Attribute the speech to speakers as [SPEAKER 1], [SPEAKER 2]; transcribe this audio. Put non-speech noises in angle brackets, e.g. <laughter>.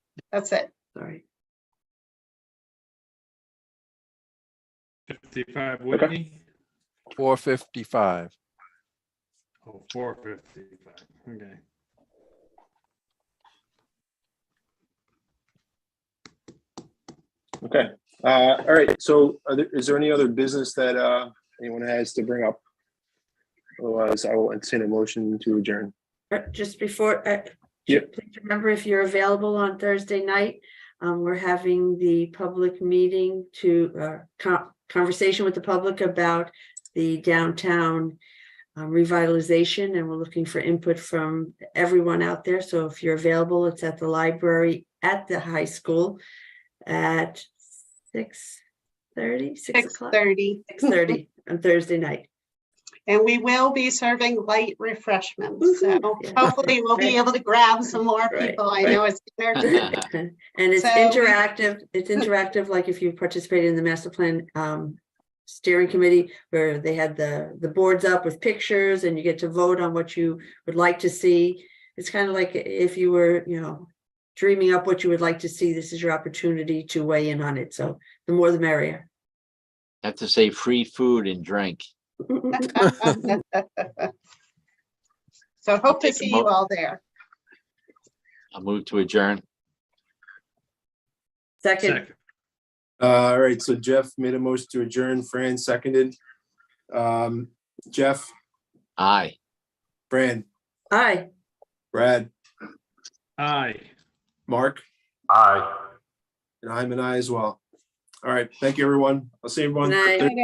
[SPEAKER 1] That's it.
[SPEAKER 2] Sorry.
[SPEAKER 3] Fifty-five Whitney,
[SPEAKER 4] Four fifty-five.
[SPEAKER 3] oh, four fifty-five, okay.
[SPEAKER 5] Okay, uh, all right, so are there, is there any other business that, uh, anyone has to bring up? Otherwise, I will entertain a motion to adjourn.
[SPEAKER 2] Uh, Just before, uh,
[SPEAKER 5] Yep.
[SPEAKER 2] please remember if you're available on Thursday night, um, we're having the public meeting to, uh, con- conversation with the public about the downtown um, revitalization, and we're looking for input from everyone out there. So if you're available, it's at the library at the high school at six thirty, six
[SPEAKER 1] Six
[SPEAKER 2] o'clock,
[SPEAKER 1] thirty.
[SPEAKER 2] six thirty on Thursday night.
[SPEAKER 1] And we will be serving light refreshments. So
[SPEAKER 2] Woohoo. Yeah.
[SPEAKER 1] hopefully we'll be
[SPEAKER 2] Right.
[SPEAKER 1] able to grab some more
[SPEAKER 2] Right,
[SPEAKER 1] people. I
[SPEAKER 2] right.
[SPEAKER 1] know it's
[SPEAKER 2] <laughs>
[SPEAKER 1] dinner.
[SPEAKER 2] And it's
[SPEAKER 1] So-
[SPEAKER 2] interactive, it's interactive, like if you participated in the master plan um steering committee where they had the the boards up with pictures and you get to vote on what you would like to see. It's kind of like if you were, you know, dreaming up what you would like to see, this is your opportunity to weigh in on it. So the more the merrier.
[SPEAKER 6] Have to say free food and drink.
[SPEAKER 1] So hope to
[SPEAKER 6] Take a
[SPEAKER 1] see you
[SPEAKER 6] mo-
[SPEAKER 1] all there.
[SPEAKER 6] I'll move to adjourn.
[SPEAKER 2] Second,
[SPEAKER 3] Second,
[SPEAKER 5] Uh, all right, so Jeff made a motion to adjourn, Fran seconded. Um, Jeff,
[SPEAKER 6] Aye.
[SPEAKER 5] Fran,
[SPEAKER 2] aye.
[SPEAKER 5] Brad,
[SPEAKER 3] aye.
[SPEAKER 5] Mark,
[SPEAKER 3] Aye.
[SPEAKER 5] and I'm an I as well. All right, thank you, everyone. I'll see everyone.
[SPEAKER 2] Good night.